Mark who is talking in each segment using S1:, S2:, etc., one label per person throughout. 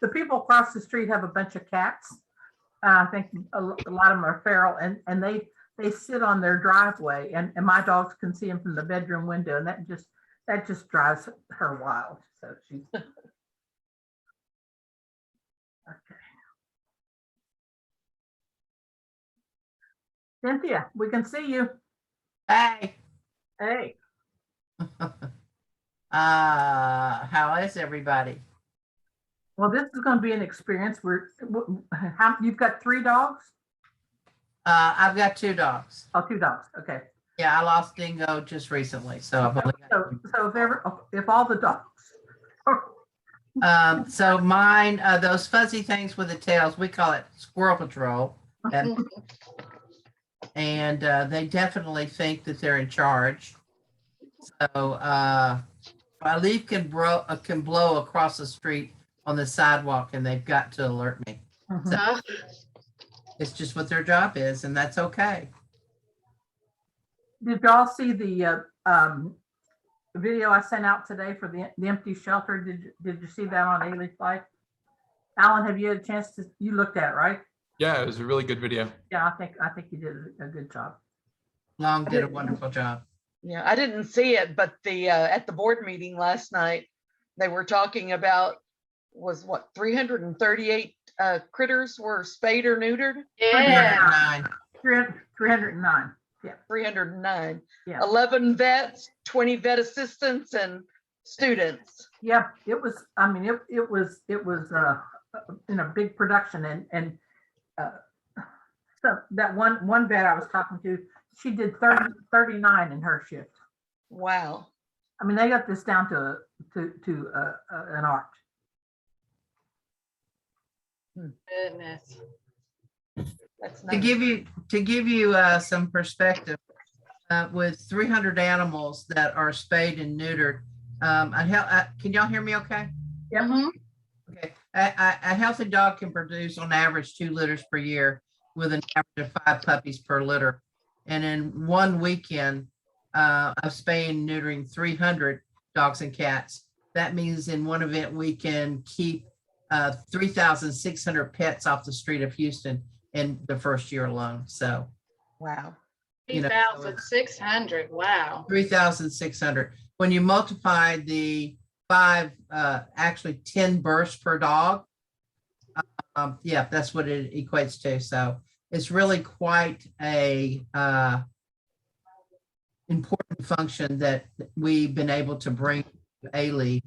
S1: the people across the street have a bunch of cats. Uh, I think a l- a lot of them are feral and, and they, they sit on their driveway and, and my dogs can see them from the bedroom window and that just, that just drives her wild. So she's. Okay. Cynthia, we can see you.
S2: Hi.
S1: Hey,
S2: Uh, how is everybody?
S1: well, this is going to be an experience. We're, w- how, you've got three dogs?
S2: Uh, I've got two dogs.
S1: Oh, two dogs. Okay.
S2: Yeah, I lost Dingo just recently, so I've only got.
S1: So, so if ever, if all the dogs,
S2: Um, so mine, uh, those fuzzy things with the tails, we call it squirrel patrol. And- And, uh, they definitely think that they're in charge. So, uh, my leaf can bro, uh, can blow across the street on the sidewalk and they've got to alert me.
S3: Mm-hmm.
S1: Mhm.
S2: Oh, It's just what their job is and that's okay.
S1: did y'all see the, uh, um, video I sent out today for the, the empty shelter? Did, you- did you see that on Daily Flight? Alan, have you had a chance to, you looked at, it, right?
S4: Yeah, it was a really good video.
S1: Yeah, I think, I think you did a good job.
S2: Long did a wonderful job.
S5: Yeah, I didn't see it, but the, uh, at the board meeting last night, they were talking about, was what, three hundred and thirty-eight, uh, critters were spayed or neutered?
S3: Oh, Yeah.
S2: Nine.
S1: Three hundred, three hundred and nine.
S5: Three hundred and nine.
S1: Yeah.
S5: Eleven vets, twenty vet assistants and students.
S1: Yeah, it was, I mean, it, it was, it was, uh, in a big production and, and, uh, so that one, one vet I was talking to, she did 30 39 in her shift.
S5: Wow.
S1: I mean, they got this down to, to, to, uh, uh, an art.
S3: Goodness.
S5: That's
S2: To
S5: nice.
S2: give you, to give you uh, some perspective, uh, with 300 animals that are spayed and neutered, um, a hel- uh, can y'all hear me okay?
S1: Yep.
S2: Mm-hmm.
S3: Mhm.
S2: Okay. A- A a healthy dog can produce on average two litters per year with an average of five puppies per litter. And in one weekend uh, of spaying and neutering 300 dogs and cats, that means in one event, we can keep uh, 3,600 pets off the street of Houston in the first year alone. So
S5: Wow.
S2: You know, so it's-
S3: 3,600. Wow.
S2: three thousand six hundred. When you multiply the five, uh, actually ten births per dog. Um, yeah, that's what it equates to. So it's really quite a, uh, important function that we've been able to bring to A-Leaf.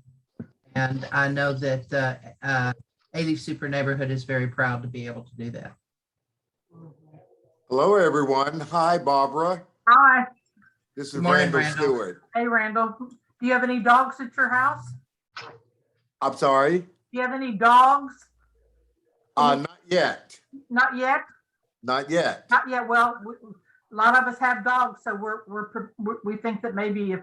S2: And I know that, uh, uh, A-Leaf Super Neighborhood is very proud to be able to do that.
S6: Hello, everyone. Hi, Barbara.
S1: Hi,
S6: This is
S2: Good morning,
S6: Randall
S2: Randall.
S6: Stewart.
S1: hey Randall, do you have any dogs at your house?
S6: I'm sorry,
S1: Do you have any dogs?
S6: uh, not yet,
S1: Not yet,
S6: not yet.
S1: not yet. Well, we- a lot of us have dogs, so we're, we're, pre- we- we think that maybe if,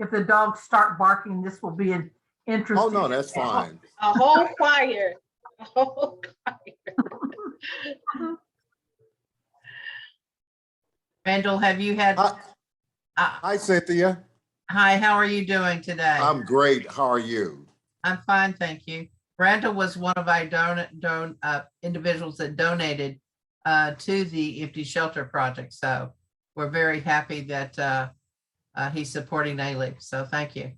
S1: if the dogs start barking, this will be an interesting.
S6: Oh, no, that's fine.
S3: A whole choir. A whole choir.
S2: Randall, have you had,
S6: Hi-
S2: uh,
S6: Hi, Cynthia.
S2: hi, how are you doing today?
S6: I'm great. How are you?
S2: I'm fine, thank you. Randall was one of our don, don, uh, individuals that donated uh, to the Empty Shelter Project, so we're very happy that uh, uh, he's supporting A-Leaf, so thank you.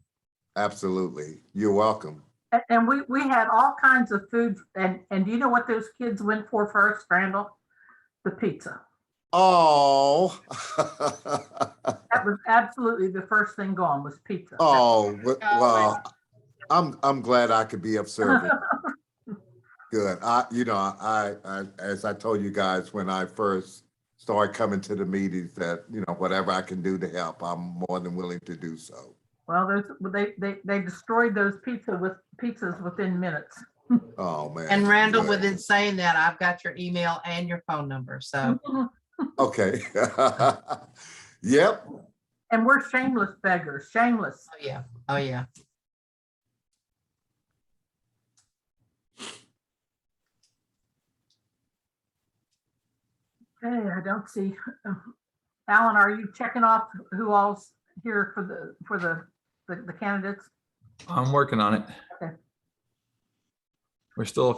S6: Absolutely. You're welcome.
S1: A- And we, we had all kinds of food and, and do you know what those kids went for first, Randall? The pizza.
S6: Oh.
S1: That was absolutely the first thing gone was pizza.
S6: Oh, w- well, I'm, I'm glad I could be of service. Good. I, you know, I, I, as I told you guys, when I first started coming to the meetings that, you know, whatever I can do to help, I'm more than willing to do so.
S1: Well, those, they, they, they destroyed those pizza with, pizzas within minutes.
S6: Oh, man.
S2: And Randall,
S6: Good.
S2: within saying that, I've got your email and your phone number, so
S6: Okay. Yep,
S1: And we're shameless beggars, shameless.
S2: oh yeah, oh yeah.
S1: Okay, I don't see. Alan, are you checking off who all's here for the, for the, the the candidates?
S4: I'm working on it.
S1: Okay.
S4: We're still a